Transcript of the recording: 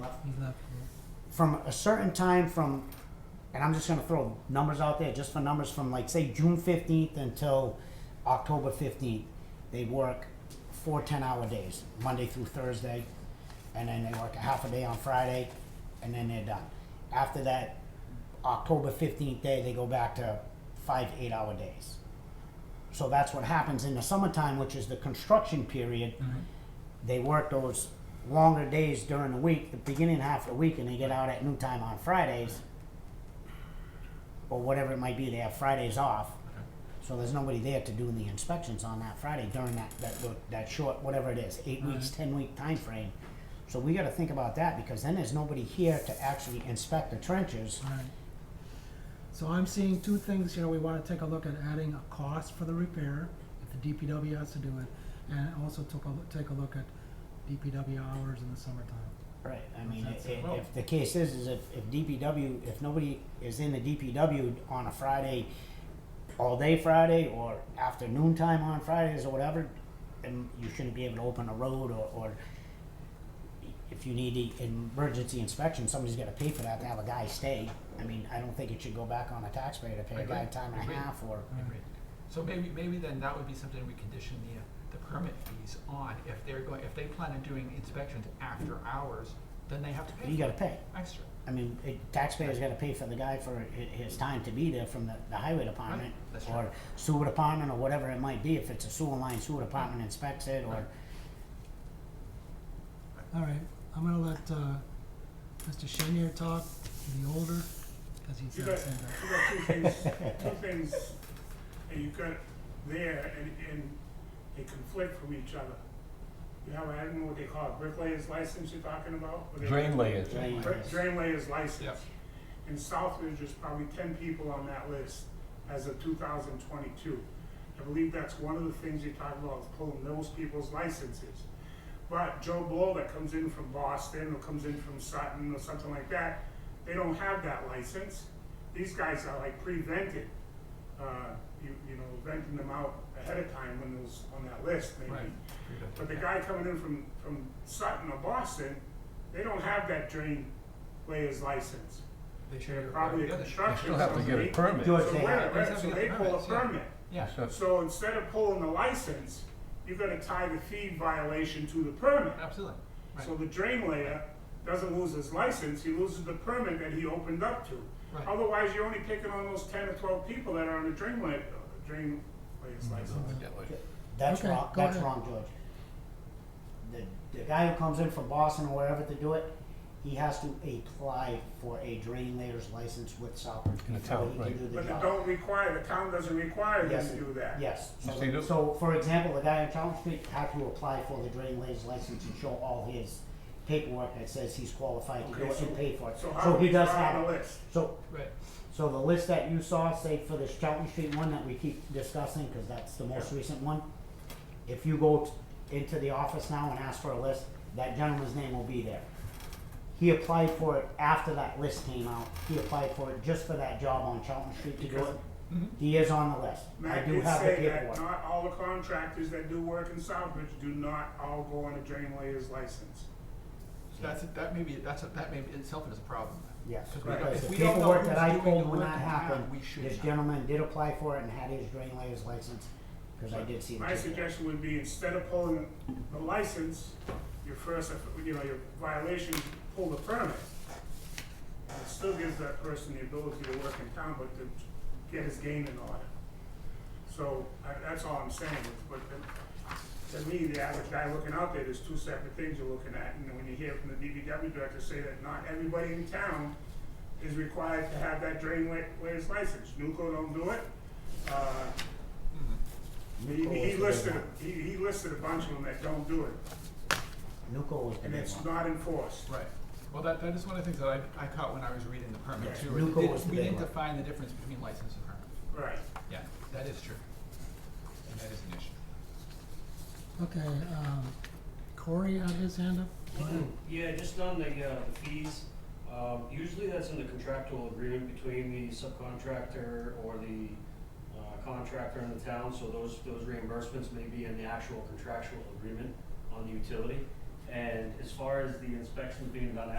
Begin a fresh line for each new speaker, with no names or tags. that
from a certain time from, and I'm just gonna throw numbers out there, just for numbers from like say June fifteenth until October fifteenth, they work four ten-hour days, Monday through Thursday, and then they work a half a day on Friday, and then they're done. After that, October fifteenth day, they go back to five eight-hour days. So that's what happens in the summertime, which is the construction period. They work those longer days during the week, the beginning half of the week, and they get out at noon time on Fridays. Or whatever it might be, they have Fridays off. So there's nobody there to do the inspections on that Friday during that, that, that short, whatever it is, eight weeks, ten week time frame. So we gotta think about that, because then there's nobody here to actually inspect the trenches.
Alright. So I'm seeing two things here, we wanna take a look at adding a cost for the repair, if the DPW has to do it, and also took a, loo- take a look at DPW hours in the summertime.
Right, I mean,
That's
i-
it.
i- if the case is, is if, if DPW, if nobody is in the DPW on a Friday, all day Friday or afternoon time on Fridays or whatever, then you shouldn't be able to open a road or, or if you need the emergency inspection, somebody's gotta pay for that to have a guy stay. I mean, I don't think it should go back on the taxpayer to pay a guy
Agreed.
time and a
Agreed.
half or,
Agreed. So maybe, maybe then that would be something we condition the, uh, the permit fees on, if they're going, if they plan on doing inspections after hours, then they have to pay
you
for
gotta
it
pay.
extra.
I mean, it, taxpayers gotta pay for the guy for hi- his time to be there from the, the highway department
Right, that's
or
right.
sewer department or whatever it might be, if it's a sewer line, sewer department inspects it or,
Right.
Alright, I'm gonna let, uh, Mr. Shinier talk, the older, cause he's
You
got
got,
his hand up.
you got two things, two things, and you've got there, and, and they conflict from each other. You have, I don't know what they call it, bricklayer's license you're talking about? What they-
Drain layers.
Drain
Dra-
layers.
Drain layer's license.
Yep.
In Southbridge, there's probably ten people on that list as of two thousand twenty-two. I believe that's one of the things you're talking about, is pulling those people's licenses. But Joe Blow that comes in from Boston or comes in from Sutton or something like that, they don't have that license. These guys are like pre-vented, uh, you, you know, venting them out ahead of time when those, on that list maybe.
Right.
But the guy coming in from, from Sutton or Boston, they don't have that drain layers license.
They should
They're
have-
probably
yeah,
a
they should.
You
construction
still have to get a
company.
permit.
Do
So
it. They
where-
have-
where-
they have
so
to
they
get
pull a
permits, yeah.
permit.
Yeah,
So-
So instead of pulling the license, you're gonna tie the fee violation to the permit.
absolutely, right,
So the drain layer doesn't lose his license, he loses the permit that he opened up to.
Right.
Otherwise, you're only picking on those ten or twelve people that are on the drain layer, drain layer's license.
that's
Okay,
wrong,
go
that's
ahead.
wrong, George. The, the guy who comes in from Boston or wherever to do it, he has to apply for a drain layers license with Southbridge
In the
before
town,
he
right.
can do the job.
But they don't require, the town doesn't require them
Yes,
to do that.
Yes,
You
so,
see
the-
the-
so for example, the guy on Charles Street had to apply for the drain layers license and show all his paperwork that says he's qualified to
Okay,
do it
so-
and pay for it,
So how
so
do
he
we
does
draw
have
the
it,
list?
so,
right,
so the list that you saw, say for this Charlton Street one that we keep discussing, cause that's the most recent one. If you go t- into the office now and ask for a list, that gentleman's name will be there. He applied for it after that list came out, he applied for it just for that job on Charlton Street to do
Because-
it,
mm-hmm.
he is on the list, I
Matt
do
did
have the paperwork.
say that not all the contractors that do work in Southbridge do not all go on a drain layers license.
so that's, that may be, that's, a- that may be itself is a problem.
Yes,
'Cause we don't-
because
if
the
we don't know
paperwork that
who's
I
doing
pulled
the
when
work
that
in
happened,
town, we should
this
know.
gentleman did apply for it and had his drain layers license, cause I did see the
My
paperwork.
suggestion would be instead of pulling the license, your first, you know, your violation, pull the permit. And It still gives that person the ability to work in town, but to get his game in order. So, I, that's all I'm saying, but to, to me, the average guy looking out there, there's two separate things you're looking at. And when you hear from the DBW director say that not everybody in town is required to have that drain wa- layers license. Newco don't do it, uh, he,
Nuco was
he
the big
listed,
one.
he, he listed a bunch of them that don't do it,
Nuco was the
and
big
it's
one.
not enforced.
Right, well, that, that is one of the things that I, I caught when I was reading the permit
Yeah,
too,
Nuco
we
was the
didn't,
big
we didn't
one.
define the difference between license and permit,
Right.
yeah, that is true. And that is an issue.
Okay, um, Corey had his hand up?
Yeah, just on the, uh, the fees, um, usually that's in the contractual agreement between the subcontractor or the, uh, contractor and the town, so those, those reimbursements may be in the actual contractual agreement on the utility. And as far as the inspections being done